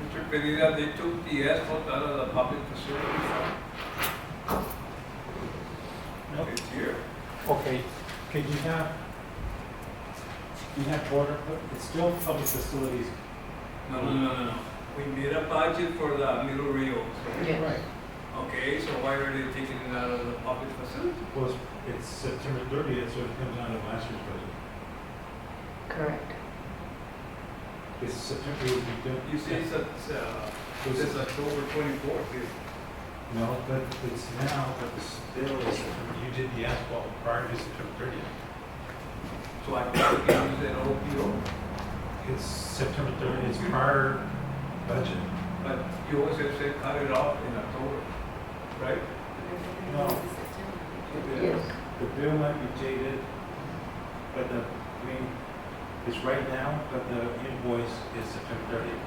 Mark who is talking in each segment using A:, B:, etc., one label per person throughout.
A: Mr. Pereira, they took the asphalt out of the public facility fund.
B: Nope.
A: It's here.
B: Okay, could you have, you have border, it's still public facilities.
A: No, no, no, no, no. We made a budget for the Middle Rio.
C: Yeah.
B: Right.
A: Okay, so why are they taking it out of the public facility?
D: Well, it's- it's September thirtieth, so it comes out of last year's budget.
C: Correct.
D: It's September, it would be done.
A: You say it's, a- it's, uh,
D: It was-
A: it's October twenty-fourth,
D: No, but it's now, but it's still, is September. you did the asphalt prior to September thirtieth.
A: so I can't use that OPO.
D: It's September thirtieth, it's prior budget.
A: But you always have said cut it off in October, right?
D: No.
C: Yes.
D: The bill might be dated, but the, I mean, it's right now, but the invoice is September thirtieth.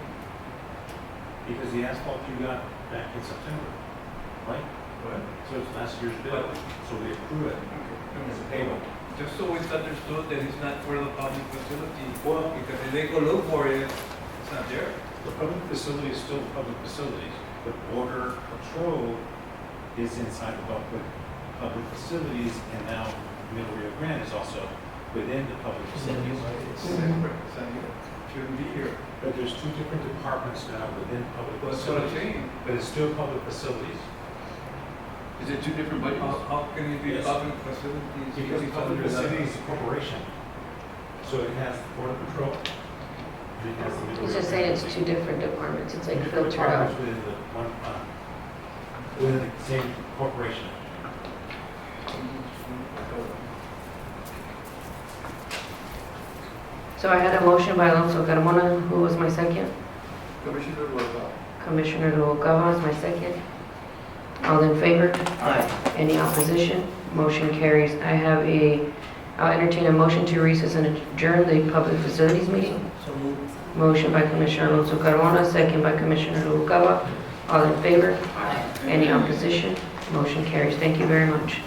D: Because the asphalt you got back in September, right?
A: Right.
D: So it's last year's bill, so we accrue it as a payment.
A: Just so it's understood that it's not for the public facility,
D: Well,
A: because if they go look for it, it's not there.
D: the public facility is still public facilities, but border patrol is inside the public, public facilities, and now Middle Rio Grande is also within the public facilities.
A: It's separate, it's not here, shouldn't be here.
D: But there's two different departments now within
A: But
D: public
A: it's gonna
D: facilities,
A: change.
D: but it's still public facilities.
E: Is it two different
A: How,
E: budgets?
A: how can it be
D: Yes.
A: public facilities? if
D: Because
A: it's
D: public
A: under the-
D: facilities is a corporation, so it has border patrol. and it has the Middle
C: He's
D: Rio
C: just saying
D: Grande.
C: it's two different departments, it's like
D: Different
C: filtered
D: departments
C: out.
D: Within the one, uh, within the same corporation.
C: So I had a motion by Alonso Carmona, who was my second.
E: Commissioner Loza.
C: Commissioner Noguera is my second. All in favor? Aye. Any opposition? Motion carries. I have a, I'll entertain a motion to recess and adjourn the public facilities meeting. Motion by Commissioner Alonso Carmona, second by Commissioner Noguera. All in favor? Any opposition? Motion carries. Thank you very much.